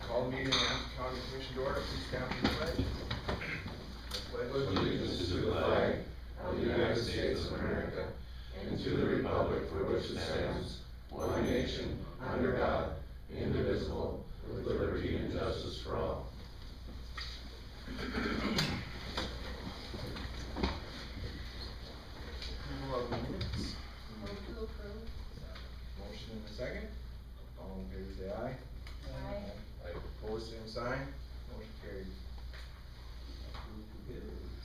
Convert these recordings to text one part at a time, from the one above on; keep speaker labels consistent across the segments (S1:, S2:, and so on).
S1: call the meeting of the Ramsey County Commission to order, please stand for the pledge.
S2: pledge allegiance to the flag of the United States of America and to the republic for which it stands, one nation, under God, indivisible, with liberty and justice for all.
S1: Approval of the minutes,
S3: Move to approve.
S1: motion in a second, all in favor say aye.
S3: Aye.
S1: Opposed, same sign, motion carried. Approved the bills.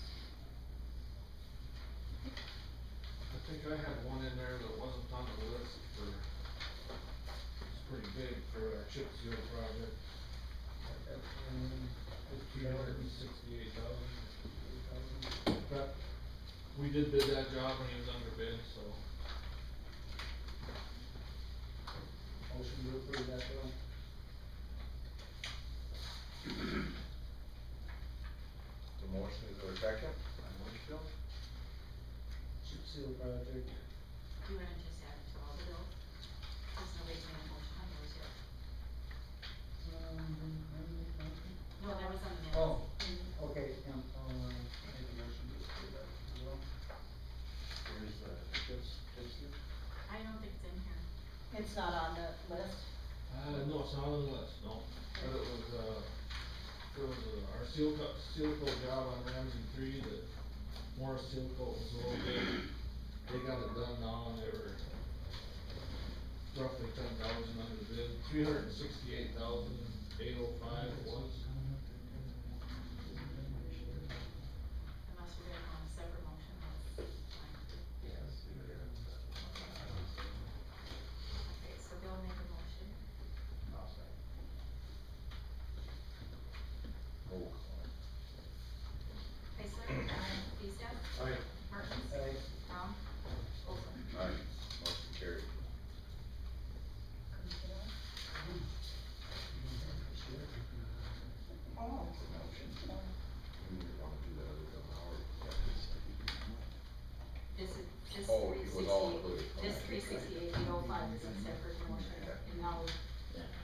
S4: I think I had one in there that wasn't on the list for, it's pretty big for our chip seal project. Fifteen hundred and sixty-eight thousand. But we did bid that job when it was under bid, so.
S5: Motion to approve that bill.
S1: The motion is there a second? By motion, Phil?
S5: Chip seal project.
S3: Do you wanna just add to all the bills? Cause nobody's made a motion on those yet. No, that was on the minutes.
S5: Oh, okay, yeah, I'll, uh, make a motion to approve that as well.
S1: Where's the, just, just you?
S3: I don't think it's in here.
S6: It's not on the list.
S4: Uh, no, it's not on the list, no. But it was, uh, it was uh, our seal co- seal coat job on Ramsey three that Morris Seal Coat was a little bit, they got it done now and they were roughly ten thousand under bid, three hundred and sixty-eight thousand, eight oh five was.
S3: Unless we're gonna on a separate motion, that's fine. Okay, so Bill made a motion.
S1: Roll call.
S3: Heisler, aye. Lezak,
S4: Alright,
S3: Martins,
S5: Aye.
S3: Brown, Olson.
S1: Aye. Motion carried. You
S6: Oh.
S1: wanna do that other than Howard?
S3: This is, this
S1: Oh,
S3: three
S1: it was all
S3: sixty,
S1: included.
S3: this
S1: Okay.
S3: three sixty-eight, eight oh five is a separate motion, and now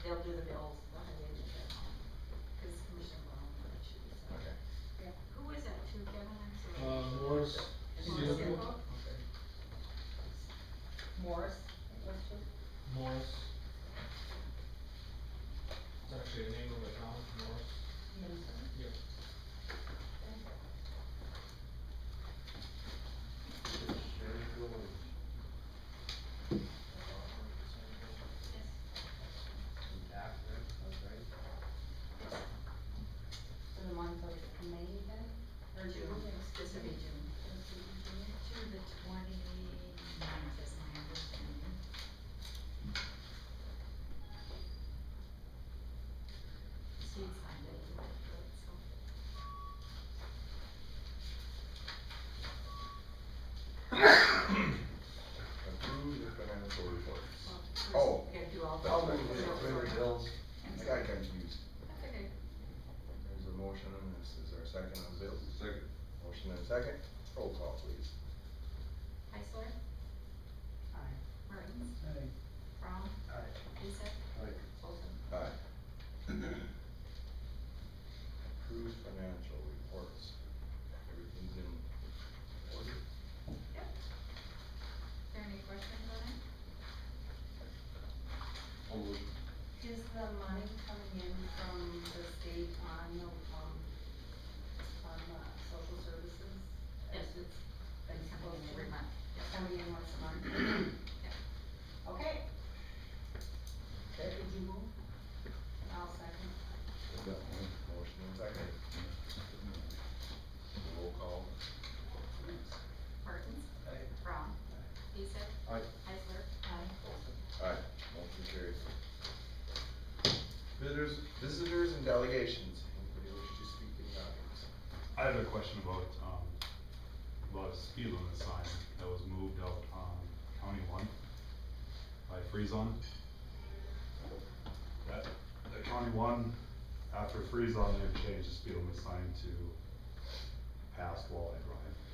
S3: they'll do the bills, the highway and the, cause Commissioner Brown, that should be set.
S1: Okay.
S3: Who was that to, Kevin, I'm sorry?
S4: uh, Morris
S3: Morris
S4: Seal Coat,
S3: Circle?
S6: Morris?
S4: Morris. It's actually the name of the town, Morris. Yep.
S6: For the month of May then?
S3: Or June, this would be June. To the twenty-ninth is my understanding. Steve's signed it, he went through it, so.
S1: Approved the financial reports.
S3: Well, first
S1: Oh.
S3: We gotta do all.
S1: I'll move
S3: the-
S1: the approved bills. I got confused.
S3: That's okay.
S1: There's a motion, and this is our second on the bill. Second. Motion and second, roll call please.
S3: Heisler,
S6: Aye.
S3: Martins,
S5: Aye.
S3: Brown,
S5: Aye.
S3: Lezak,
S1: Aye.
S3: Olson.
S1: Aye. Approved financial reports. Everything's in order.
S3: Yep. Is there any questions on it?
S6: Is the money coming in from the state on the, um, on the social services?
S3: Yes, it's been coming in every month.
S6: It's coming in once a month? Okay. Did you move? I'll second.
S1: Motion and second. Roll call. please.
S3: Martins,
S1: Aye.
S3: Brown, Lezak.
S1: Aye.
S3: Heisler. Olson.
S1: Aye, motion carries. Visitors, visitors and delegations, anybody wish to speak in the audience?
S7: I have a question about, um, about a speed limit sign that was moved out on County One by Freezon. That, the County One, after Freezon, they've changed the speed limit sign to past Walleye Drive.